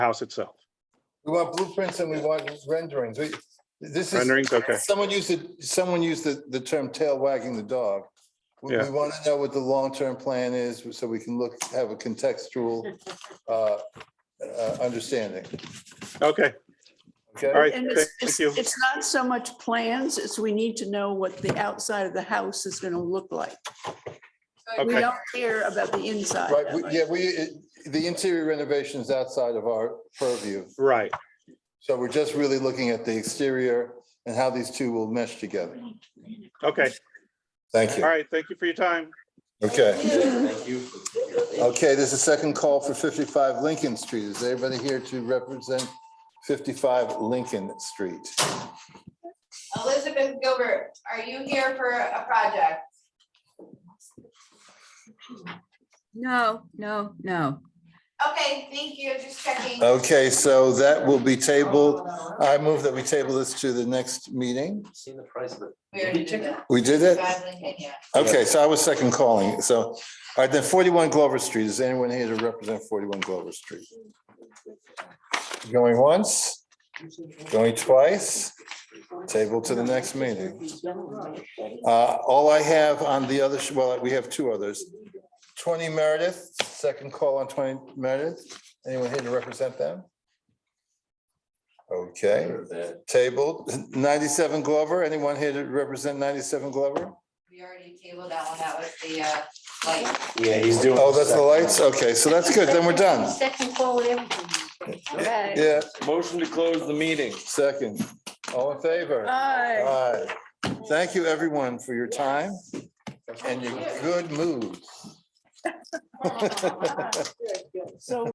house itself. We want blueprints and we want renderings. We- This is, Renderings, okay. someone used it, someone used the, the term tail wagging the dog. We, Yeah. we want to know what the long-term plan is so we can look, have a contextual, uh, uh, understanding. Okay, Okay? all right, And thank it's, it's, you. it's not so much plans, it's we need to know what the outside of the house is gonna look like. We Okay, don't care about the inside. Right, that we- much. yeah, we, it- the interior renovation is outside of our purview. right, So we're just really looking at the exterior and how these two will mesh together. okay, Thank all you. right, thank you for your time. Okay. Thank you. Okay, there's a second call for 55 Lincoln Street. Is everybody here to represent 55 Lincoln Street? Elizabeth Gilbert, are you here for a project? No, no, no. Okay, thank you, just checking. Okay, so that will be tabled. I move that we table this to the next meeting. Seen the price of it. We already did that. We did it? Badly, and yeah. Okay, so I was second calling. So, all right, then 41 Glover Street. Is anyone here to represent 41 Glover Street? Going once, going twice, table to the next meeting. Uh, All I have on the other, sh- well, we have two others. 20 Meredith, second call on 20 Meredith. Anyone here to represent them? Okay, tabled. 97 Glover, anyone here to represent 97 Glover? We already tabled that one, that was the, uh, like, Yeah, he's doing. Oh, that's the lights? Okay, so that's good, then we're done. Second forward everything. Okay. Yeah, Motion to close the meeting. second. All in favor? Aye. Aye. Thank you, everyone, for your time and your good mood. So